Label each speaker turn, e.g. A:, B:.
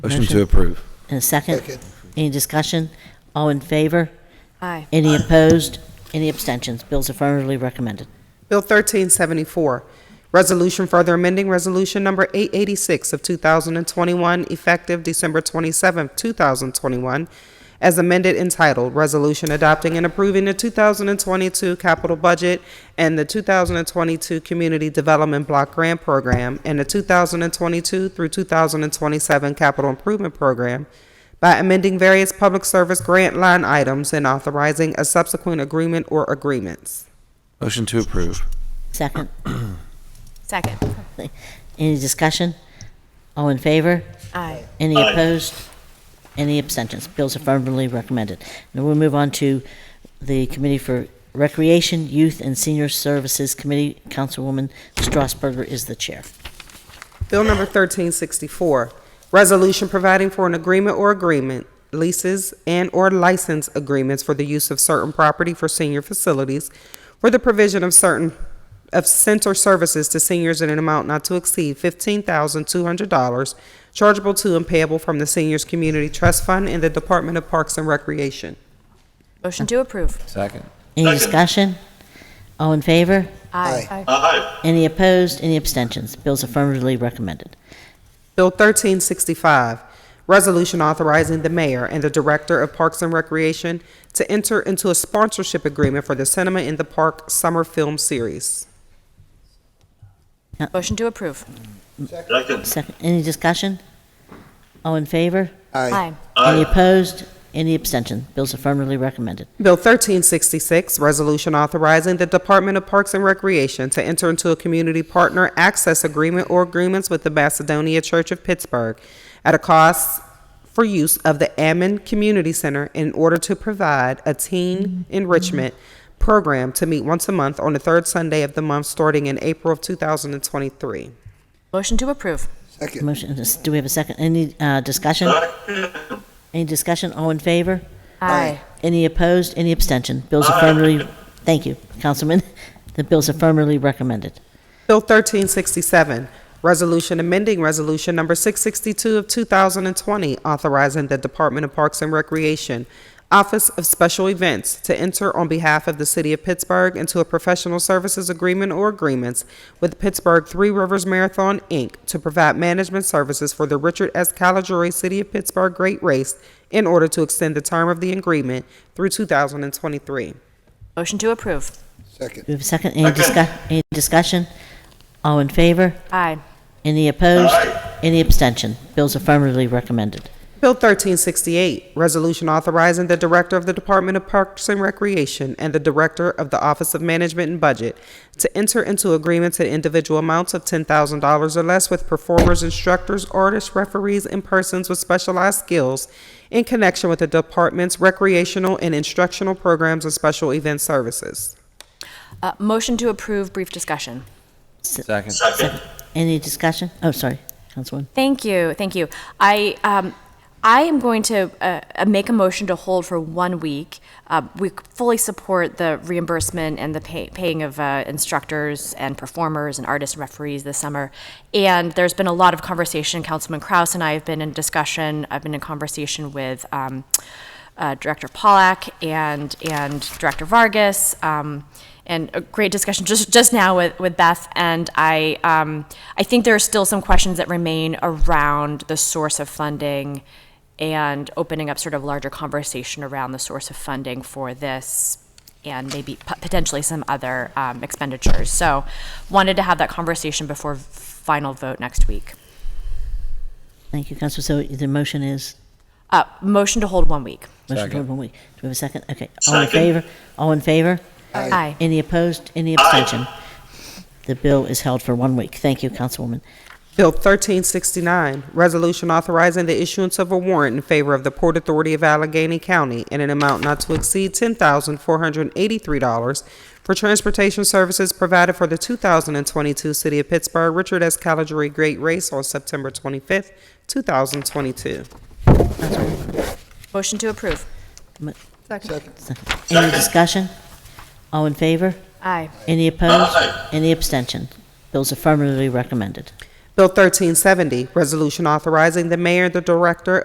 A: Motion to approve.
B: And a second?
C: Second.
B: Any discussion? All in favor?
D: Aye.
B: Any opposed? Any abstentions? Bill's affirmatively recommended.
E: Bill 1374, resolution further amending Resolution Number 886 of 2021, effective December 27, 2021, as amended entitled, Resolution Adopting and Approving the 2022 Capital Budget and the 2022 Community Development Block Grant Program and the 2022 through 2027 Capital Improvement Program, by amending various public service grant line items and authorizing a subsequent agreement or agreements.
A: Motion to approve.
B: Second?
D: Second.
B: Any discussion? All in favor?
D: Aye.
B: Any opposed? Any abstentions? Bill's affirmatively recommended. Now we'll move on to the Committee for Recreation, Youth, and Senior Services Committee. Councilwoman Strasburger is the chair.
E: Bill number 1364, resolution providing for an agreement or agreement, leases and/or license agreements for the use of certain property for senior facilities for the provision of certain, of center services to seniors in an amount not to exceed $15,200, chargeable to and payable from the Seniors Community Trust Fund and the Department of Parks and Recreation.
D: Motion to approve.
A: Second.
B: Any
F: Second.
B: discussion? All in favor?
D: Aye.
F: Aye.
B: Any opposed? Any abstentions? Bill's affirmatively recommended.
E: Bill 1365, resolution authorizing the mayor and the director of Parks and Recreation to enter into a sponsorship agreement for the Cinema in the Park Summer Film Series.
D: Motion to approve.
F: Second.
B: Second, any discussion? All in favor?
D: Aye.
B: Any
F: Aye.
B: opposed? Any abstention? Bill's affirmatively recommended.
E: Bill 1366, resolution authorizing the Department of Parks and Recreation to enter into a community partner access agreement or agreements with the Macedonia Church of Pittsburgh at a cost for use of the Ammon Community Center in order to provide a teen enrichment program to meet once a month on the third Sunday of the month starting in April of 2023.
D: Motion to approve.
B: Motion, is- do we have a second? Any uh, discussion? Any discussion? All in favor?
D: Aye.
B: Any opposed? Any abstention? Bill's affirmatively, thank you, Councilman. The bill's affirmatively recommended.
E: Bill 1367, resolution amending Resolution Number 662 of 2020, authorizing the Department of Parks and Recreation Office of Special Events to enter on behalf of the City of Pittsburgh into a professional services agreement or agreements with Pittsburgh Three Rivers Marathon, Inc., to provide management services for the Richard S. Caligari City of Pittsburgh Great Race in order to extend the term of the agreement through 2023.
D: Motion to approve.
B: Do we have a second? Any
F: Second.
B: discuss, any discussion? All in favor?
D: Aye.
B: Any opposed?
F: Aye.
B: Any abstention? Bill's affirmatively recommended.
E: Bill 1368, Resolution Authorizing the Director of the Department of Parks and Recreation and the Director of the Office of Management and Budget to enter into agreements at individual amounts of $10,000 or less with performers, instructors, artists, referees, and persons with specialized skills in connection with the department's recreational and instructional programs and special event services.
D: Uh, Motion to approve, brief discussion.
A: Second.
F: Second.
B: Any discussion? Oh, sorry, Councilwoman.
D: Thank you, thank you. I, um, I am going to uh, uh, make a motion to hold for one week. Uh, we fully support the reimbursement and the pay- paying of uh, instructors and performers and artists and referees this summer. And there's been a lot of conversation. Councilman Kraus and I have been in discussion. I've been in conversation with um, uh, Director Pollack and and Director Vargas. Um, and a great discussion just just now with, with Beth. And I um, I think there are still some questions that remain around the source of funding and opening up sort of larger conversation around the source of funding for this and maybe p- potentially some other um, expenditures. So wanted to have that conversation before final vote next week.
B: Thank you, Council. So the motion is?
D: Uh, motion to hold one week.
B: Motion to
A: Second.
B: hold one week. Do we have a second? Okay. All in
F: Second.
B: favor? All in favor?
D: Aye.
B: Any opposed? Any abstention? The bill is held for one week. Thank you, Councilwoman.
E: Bill 1369, resolution authorizing the issuance of a warrant in favor of the Port Authority of Allegheny County in an amount not to exceed $10,483 for transportation services provided for the 2022 City of Pittsburgh Richard S. Caligari Great Race on September 25th, 2022.
D: Motion to approve.
B: Any discussion? All in favor?
D: Aye.
B: Any opposed?
F: Aye.
B: Any abstention? Bill's affirmatively recommended.
E: Bill 1370, Resolution Authorizing the Mayor and the Director